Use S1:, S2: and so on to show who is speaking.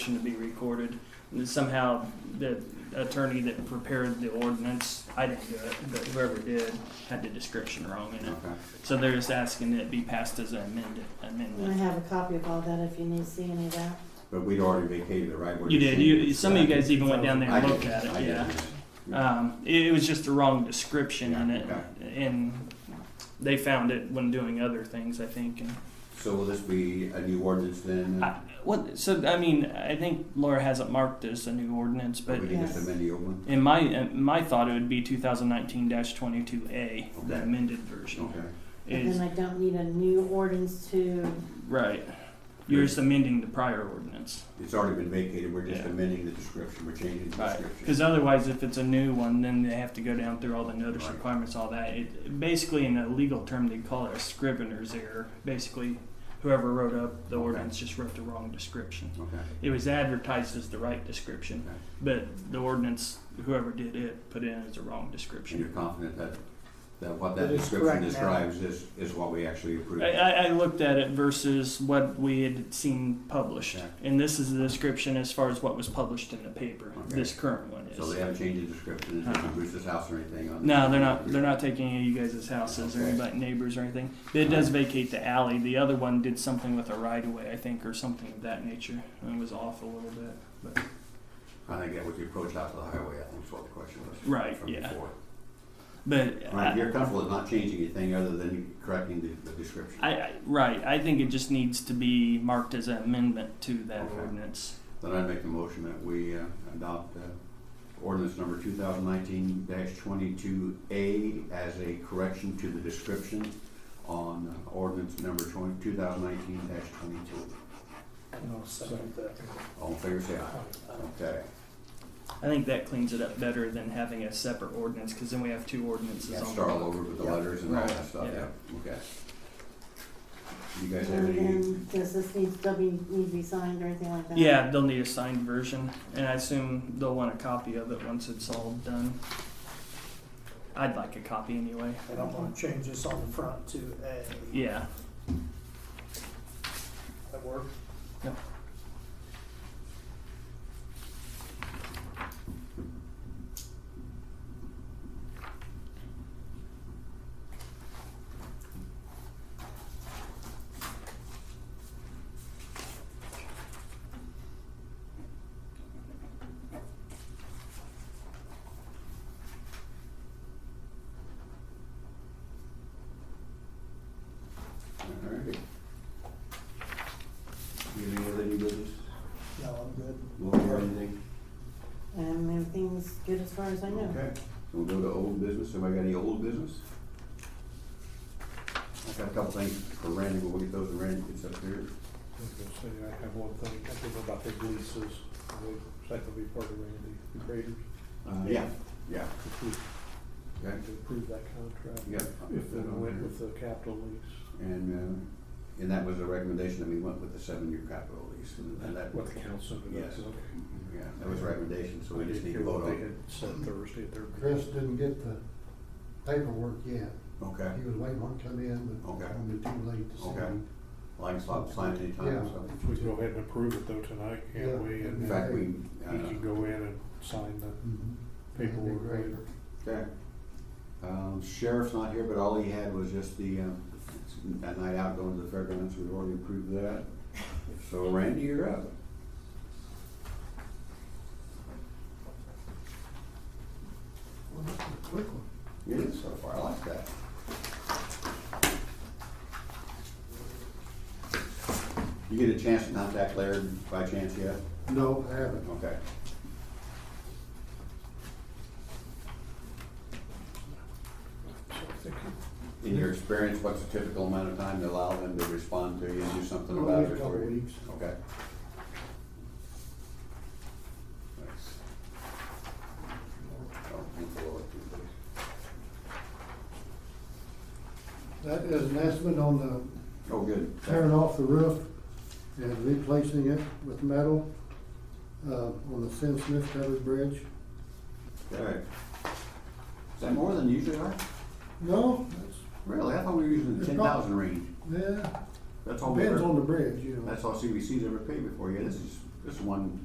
S1: to be recorded. And somehow the attorney that prepared the ordinance, I didn't do it, but whoever did had the description wrong in it.
S2: Okay.
S1: So they're just asking that it be passed as an amended
S3: And I
S1: amendment.
S3: have a copy of all that if you need to see any of that.
S2: But we'd already vacated it, right? What
S1: You
S2: you're
S1: did.
S2: saying
S1: You,
S2: is-
S1: some of you guys even went down there
S2: I
S1: and
S2: did.
S1: looked at
S2: I
S1: it.
S2: did.
S1: Yeah. Um, it, it was just the wrong description in
S2: Yeah,
S1: it, and they found it when doing other things. I think. And
S2: So will this be a new ordinance then?
S1: I, what? So I mean, I think Laura hasn't marked this a new ordinance,
S2: Or
S1: but
S2: we can just
S3: Yes.
S2: amend the old one?
S1: In my in my thought, it would be 2019-22A, the
S2: Okay.
S1: amended version.
S2: Okay.
S3: But
S1: Is
S3: then I don't need a new ordinance to,
S1: right. You're just amending the prior ordinance,
S2: It's already been vacated, we're just
S1: Yeah.
S2: amending the description, we're changing the
S1: right?
S2: description.
S1: Because otherwise, if it's a new one, then they have to go down through all the notice
S2: Right.
S1: requirements, all that. It basically, in a legal term, they call it a scrivener's error. Basically, whoever wrote up the
S2: Okay.
S1: ordinance just wrote the wrong description.
S2: Okay.
S1: It was advertised as the right description,
S2: Okay.
S1: but the ordinance, whoever did it, put in as the wrong
S2: And
S1: description.
S2: you're confident that, that what that
S4: That is
S2: description
S4: correct now.
S2: describes is, is what we actually approved?
S1: I, I, I looked at it versus what we had seen published,
S2: Okay.
S1: and this is the description as far as what was published in the paper.
S2: Okay.
S1: This current one is.
S2: So they haven't changed the description, it's not
S1: Uh-uh.
S2: Bruce's house or anything on it?
S1: no, they're not. They're not taking any of you guys' houses or
S2: Okay.
S1: anybody neighbors or anything. But it does vacate the alley. The other one did something with a right of way, I think, or something of that nature, and it was off a little bit. But
S2: I think that was the approach out to the highway, I think is what the question was.
S1: Right,
S2: From
S1: yeah.
S2: before.
S1: but
S2: All right,
S1: I,
S2: you're comfortable with not changing anything other than correcting the, the description?
S1: I, I right. I think it just needs to be marked as an amendment to that
S2: Okay.
S1: ordinance.
S2: Then I'd make the motion that we uh, adopt uh, ordinance number two thousand nineteen twenty-two A as a correction to the description on uh, ordinance number twenty, two thousand nineteen twenty-two.
S4: No, second that.
S2: All in favor, say aye. Okay.
S1: I think that cleans it up better than having a separate ordinance because then we have two ordinances
S2: Yeah,
S1: on the
S2: start all
S1: block.
S2: over with the
S4: Yeah.
S2: letters and all that
S1: Right,
S2: stuff,
S1: yeah.
S2: yeah, okay. You guys have
S3: and
S2: any,
S3: then does this need, still be, need to be signed or anything like that?
S1: Yeah, they'll need a signed version, and I assume they'll want a copy of it once it's all done. I'd like a copy anyway.
S4: And I'm gonna change this on the front to A.
S1: Yeah,
S4: That work?
S2: all right. You have any other new business?
S4: No, I'm good.
S2: Lori, you have anything?
S3: And everything's good as far as I know.
S2: Okay, so we'll go to old business, anybody got any old business? I got a couple things for Randy, but we'll get those when Randy gets up here.
S5: I was gonna say, I have one thing, I think about the leases, which that could be part of Randy, the graders,
S2: Uh, yeah, yeah,
S5: if we
S2: okay,
S5: can approve that contract.
S2: yeah.
S5: If it went with the capital lease,
S2: And, uh, and that was a recommendation that we went with the seven-year capital lease, and and that,
S5: what the council did,
S2: Yes.
S5: that's okay.
S2: yeah, that was a recommendation, so we just need to vote
S5: They
S2: on
S5: had said Thursday at their.
S6: Chris didn't get the paperwork yet.
S2: it. Okay,
S6: He was waiting on it to come in, but
S2: Okay.
S6: it'll be too late to
S2: Okay.
S6: see.
S2: well, I can stop signing anytime, so.
S5: If we go ahead and approve it though tonight,
S6: Yeah.
S5: can't we?
S2: In
S5: And
S2: fact, we,
S5: He can
S2: uh,
S5: go in and sign the
S6: Mhm. That'd be
S5: paperwork
S6: great.
S5: later.
S2: okay. Um, sheriff's not here, but all he had was just the, um, that night out going to the fairgrounds, we already approved that. So Randy, you're up.
S6: Well, that's a quick one.
S2: You did so far, I like that. You get a chance to contact Laird by chance yet?
S6: No, I haven't.
S2: Okay.
S5: So I think
S2: In your experience, what's the typical amount of time to allow them to respond to you and do something
S6: Well,
S2: about
S6: a
S2: it?
S6: couple
S2: for you?
S6: weeks.
S2: Okay. Thanks. Oh, thank the Lord.
S6: That is an estimate on the
S2: Oh, good.
S6: tearing off the roof and replacing it with metal, uh, on the Sin Smith covered bridge.
S2: Okay. Is that more than you usually are?
S6: No, that's,
S2: Really? I thought we were using the
S6: It's
S2: ten
S6: not-
S2: thousand range.
S6: yeah,
S2: That's all we
S6: depends
S2: ever,
S6: on the bridge, you know.
S2: that's all CBC's ever paid before. Yeah, this is This one